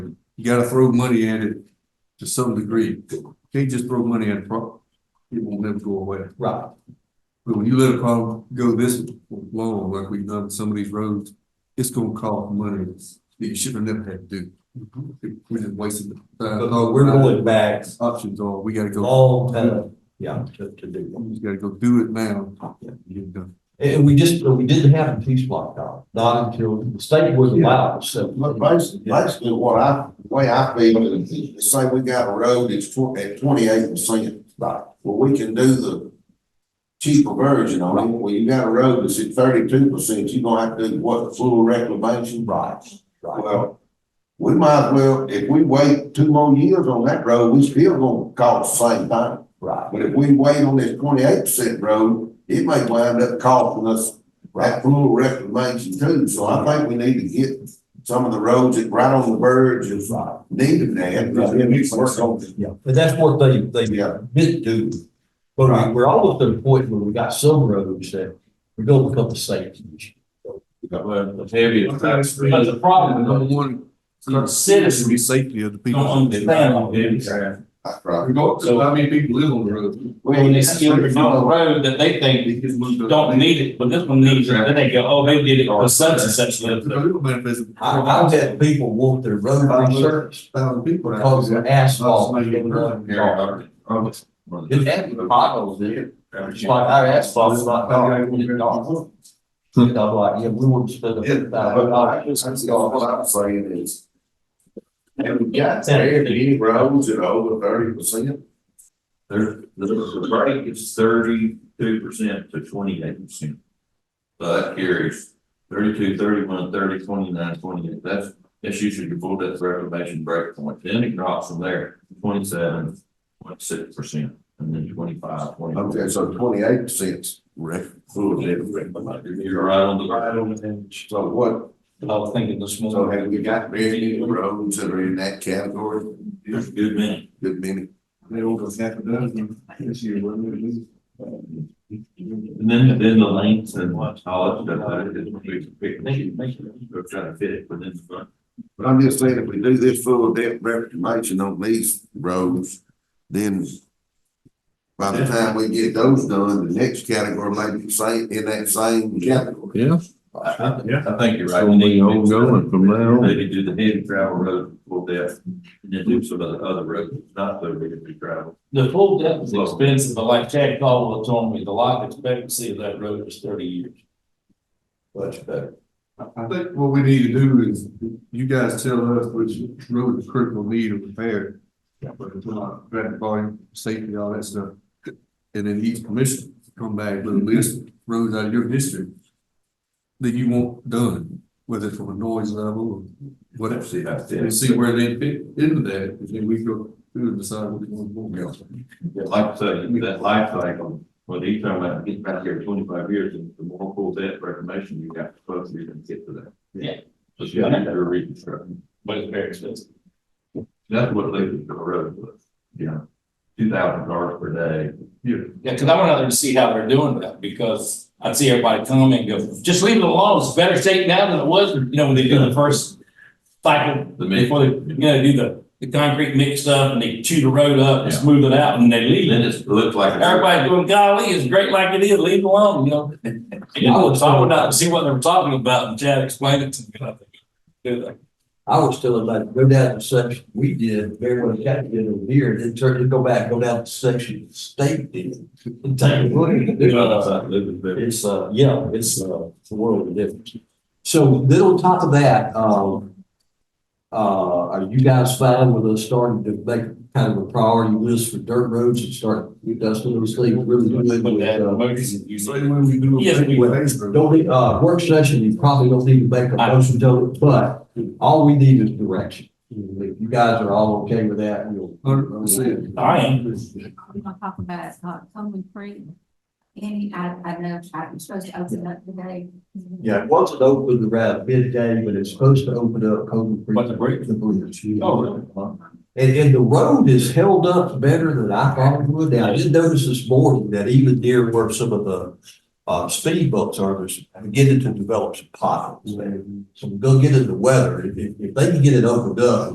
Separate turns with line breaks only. you gotta throw money at it to some degree. Can't just throw money at a problem. It will never go away.
Right,
But when you let a problem go this long, like we've done with some of these roads, it's gonna cost money that you should have never had to do. We're just wasting the time.
Mm-hmm. but Uh, we're going back
Options are, we gotta go,
all time, yeah, to, to do
we just gotta go do it now.
Yeah.
Get it done.
And, and we just, we didn't have a piece block out, not until the state was allowed, so.
But basically, basically what I, the way I feel is, say we got a road that's tw- at twenty-eight percent.
Right.
Well, we can do the cheaper version on it. Well, you got a road that's at thirty-two percent, you're gonna have to do what, full reclamation?
Right, right.
Well, we might as well, if we wait two more years on that road, we still gonna cost the same thing.
Right,
But if we wait on this twenty-eight percent road, it may wind up costing us that full reclamation too. So I think we need to get some of the roads that right on the verge is
right.
needed there. because it needs work on it.
Yeah, but that's what they, they
Yeah.
did do. But we, we're almost at a point where we got some roads that we're gonna become a safety issue.
Well, the heaviest.
But the problem,
I
is that
don't want
the
the
citizens
safety of the people.
don't understand all this.
That's right.
Regardless of how many people live on the road.
When they see it on the road that they think you don't need it, but this one needs it, then they go, oh, they did it for such and such.
The
lives."
little manifest.
I, I've had people want their road resurfaced
Thousand people. out
because
there.
of asphalt. It had the potholes in it. It's like our asphalt's not dark, it's dark. You know, like, yeah, we wouldn't spend a.
Yeah,
Uh,
but I just, that's all what I'm saying is. Have we got there any roads that are over thirty percent?
There, the, the break is thirty-two percent to twenty-eight percent. So that carries thirty-two, thirty-one, thirty, twenty-nine, twenty-eight, that's, that's usually your full depth reclamation break point, then it drops from there, twenty-seven, twenty-six percent, and then twenty-five, twenty-four.
Okay, so twenty-eight percent. Right.
You're right on the. Right on the edge.
So what,
I was thinking this
so
morning.
have we got very many roads that are in that category?
There's a good many.
Good many.
They over half a dozen this year, wasn't it?
And then, then the lengths and what, all that stuff, that is, we, we, we're trying to fit it within the. front.
But I'm just saying, if we do this full depth reclamation on these roads, then by the time we get those done, the next category might be same, in that same category.
Yeah.
I, I, I think you're right. We need to do
Ongoing from now on.
something. Maybe do the heavy gravel road full depth, and then do some of the other roads, not so big as gravel.
The full depth is expensive, but like Chad Caldwell told me, the life expectancy of that road is thirty years.
Much better.
I I think what we need to do is, you guys tell us which road is critical need of repair. But it's not traffic volume, safety, all that stuff. And then each commission come back with a list of roads out of your district that you want done, whether it's from a noise level or whatever.
See, that's it.
And see where they fit into that, and then we go through and decide what we want to go.
Like I said, that life cycle, when you talk about getting back here twenty-five years, and the more full depth reclamation you got, the closer you're gonna get to that.
Yeah.
So you gotta do a reconstruction.
But it's very expensive.
That's what leads to the road, was, you know, two thousand cars per day.
Yeah, cause I went out there to see how they're doing that, because I'd see everybody come and go, just leave it alone, it's better shape now than it was, you know, when they do the first cycle
The mix.
Before they, you know, do the, the concrete mix up and they chew the road up and smooth it out and they leave
Then
it.
it looks like. it's-
Everybody doing golly, it's great like it is, leave it alone, you know? I was, I went out to see what they were talking about and Chad explained it to me. and I think, do that.
I was telling like, go down the section we did, very well, got to get over here, then turn, then go back, go down the section the state did. And take a look at it.
Uh,
It's, uh, yeah, it's, uh, it's a world of difference. So then on top of that, um, uh, are you guys fine with us starting to make kind of a priority list for dirt roads and start, that's one of those things really good
Put
with,
that
uh,
motion, you
So
say.
when we do. a
Yes, we-
Facebook-
Don't need, uh, work session, you probably don't need to make a motion to it, but
Mm-hmm.
all we need is direction. If you guys are all okay with that, we'll.
Hundred percent.
I am.
We're gonna talk about, uh, Coleman Creek. Any, I, I know, I'm supposed to open up today.
Yeah, once it opens around midday, but it's supposed to open up Coleman Creek.
What, the bridge?
The bridge. yeah.
Oh, really?
And, and the road is held up better than I thought it would. Now, I did notice this morning that even near where some of the, uh, speed bumps are, there's
Mm-hmm.
beginning to develop some potholes. there. So we go get in the weather, if, if- if they can get it opened up,